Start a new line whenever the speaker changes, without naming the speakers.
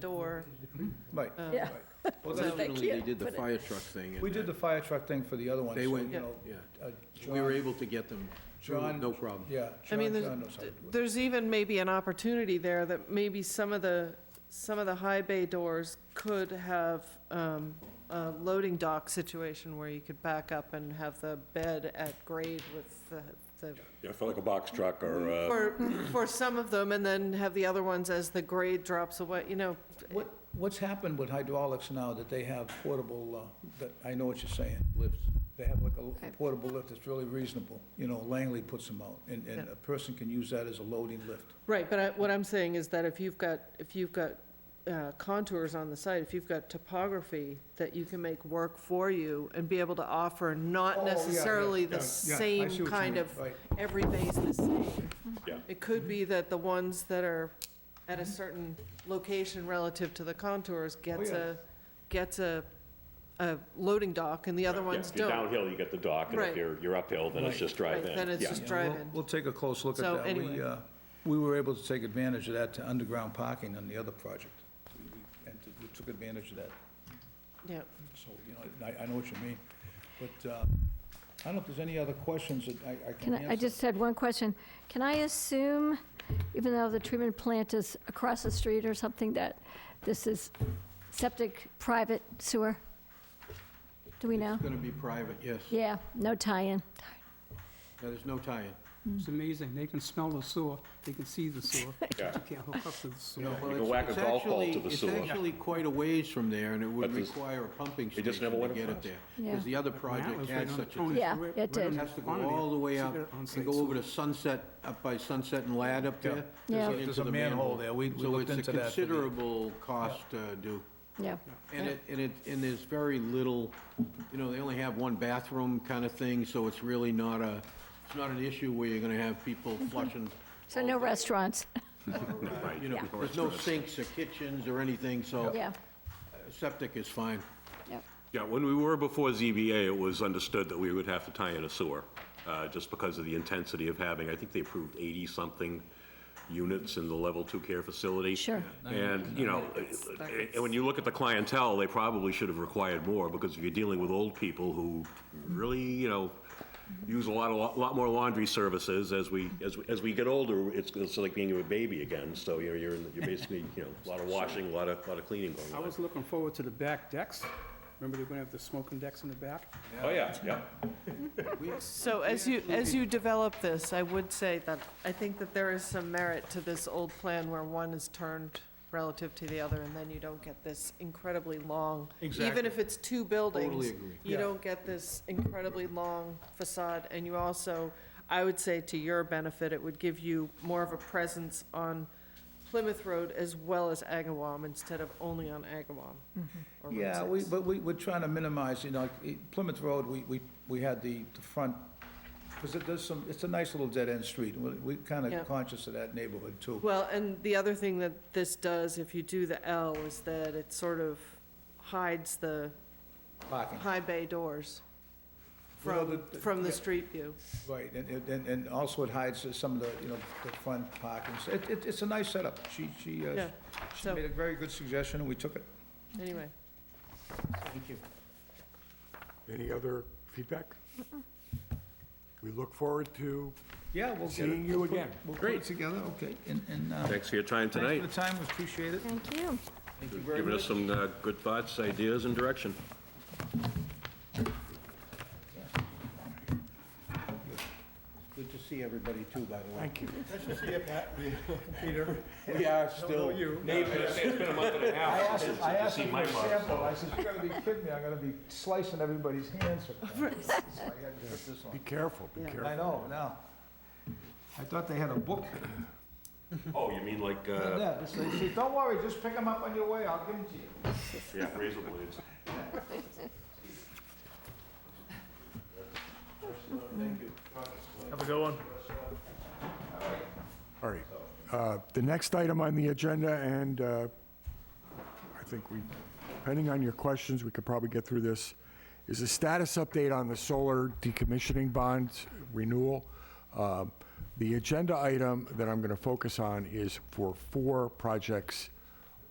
door.
Right.
um,
Yeah.
Well,
So-
literally, they did the
Put it-
fire truck thing. and
We did the fire truck thing for the other one.
They
so,
went-
you know,
Yeah,
uh,
we were
John-
able to get them through,
John-
no problem.
Yeah.
I mean,
John-
there's-
John knows how to do it.
There's even maybe an opportunity there that maybe some of the, some of the high bay doors could have um, a loading dock situation where you could back up and have the bed at grade with the, the
Yeah, for like a box truck or, uh,
for, for some of them, and then have the other ones as the grade drops away, you know,
What, what's happened with hydraulics now that they have portable, uh, that, I know what you're saying. Lifts. They have like a l-
Okay.
portable lift that's really reasonable. You know, Langley puts them out, and, and
Yeah.
a person can use that as a loading lift.
Right, but I- what I'm saying is that if you've got, if you've got uh, contours on the site, if you've got topography that you can make work for you and be able to offer
Oh,
not
yeah, yeah,
necessarily
yeah,
the
yeah, I see what
same
you
kind
mean,
of,
right.
every base the same.
Yeah.
It could be that the ones that are at a
Mm-hmm.
certain location relative to the contours gets
Oh, yeah.
a, gets a, a loading dock and the other
yeah,
ones
if you're
don't.
downhill, you get the dock, and
Right.
if you're, you're uphill, then it's
Right.
just drive
Right,
in.
then it's
Yeah.
just-
Yeah,
drive
we'll-
in.
We'll take a close look at
So
that.
anyway.
We, uh, we were able to take advantage of that to underground parking on the other project. We- we- And t- we took advantage of that,
Yeah,
so, you know, I, I know what you mean. But, uh, I don't know if there's any other questions that I, I can
Can
answer.
I, I just had one question. Can I assume, even though the treatment plant is across the street or something, that this is septic private sewer? Do we know?
It's gonna be private, yes.
Yeah, no tie-in.
Yeah, There's no tie-in.
It's amazing, they can smell the sewer, they can see the sewer, but you
Yeah.
can't hook up to the sewer.
Well,
can
it's-
whack a
it's
golf ball
actually-
to the sewer.
It's actually quite a ways from there, and it would
But this-
require a pumping
They just
station
never
to
went
get it
across.
there.
Yeah.
Because the other project
Right
had
on
such a
Tony's-
thing.
Yeah,
right-
it
right on
did.
the
Has to go
corner there.
all the way
It's
up
right on
and
site
go over to
sewer.
Sunset, up by Sunset and Lad up
Yeah.
there.
Yeah.
and
There's a- there's
into
a
the
manhole there. We- we looked into that, but
So
the-
it's a considerable cost uh, due.
Yeah,
And it, and it, and there's very little, you know, they only have one bathroom kind of thing, so it's really not a, it's not an issue where you're gonna have people flushing.
Mm-hmm. so no restaurants.
Right. You know, there's no sinks or kitchens or anything, so.
Yeah,
uh, Septic is fine.
yeah.
Yeah, when we were before ZBA, it was understood that we would have to tie in a sewer, uh, just because of the intensity of having, I think they approved 80-something units in the Level 2 care facility.
Sure.
And, you know, and when you look at the clientele, they probably should have required more, because if you're dealing with old people who really, you know, use a lot, a lot lot more laundry services as we, as we, as we get older, it's, it's like being a baby again, so, you know, you're, in- you're basically, you know, a lot of washing, a lot of, a lot of cleaning going
I
on.
was looking forward to the back decks, remember they're gonna have the smoking decks in the back?
Oh, yeah, yeah.
So as you, as you develop this, I would say that, I think that there is some merit to this old plan where one is turned relative to the other, and then you don't get this incredibly long. Even if it's two buildings,
agree.
you don't get this incredibly long facade, and you also, I would say to your benefit, it would give you more of a presence on Plymouth Road as well as Agawam instead of only on Agawam. or Route
Yeah, we,
six.
but we, we're trying to minimize, you know, like, eh, Plymouth Road, we, we, we had the, the front, because it does some, it's a nice little dead-end street, we, we kind
Yeah.
of conscious of that neighborhood too.
Well, and the other thing that this does, if you do the L, is that it sort of hides the
Parking.
high bay doors
Well,
from,
the-
from the
yeah.
street view.
Right, and, and- and, and also it hides some of the, you know, the front parking, So it, it, it's a nice setup, she, she, uh,
Yeah,
she
so-
made a very good suggestion, and we took it.
Anyway,
Thank you.
Any other feedback? We look forward to
Yeah, we'll get
seeing
it,
you again.
we'll put it together, okay, and, and, uh,
Thanks for your time
thanks
tonight.
for the time, we appreciate it.
Thank you.
Thank you very
Giving us
much.
some uh, good thoughts, ideas, and direction.
Good to see everybody too, by the way.
Thank you. Nice to see you, Pat, Peter.
We are still
I asked, I asked him for a sample, I said, you gotta be kidding me, I'm gonna be slicing everybody's hands. So I had to put this
Be
on.
careful, be
Yeah.
careful.
I know, now. I thought they had a book.
Oh, you mean like, uh,
Yeah, so they said, don't worry, just pick them up on your way, I'll give them to you.
yeah, razor blades?
All right. Uh, The next item on the agenda, and uh, I think we, depending on your questions, we could probably get through this, is a status update on the solar decommissioning bond renewal. Um, The agenda item that I'm going to focus on is for four projects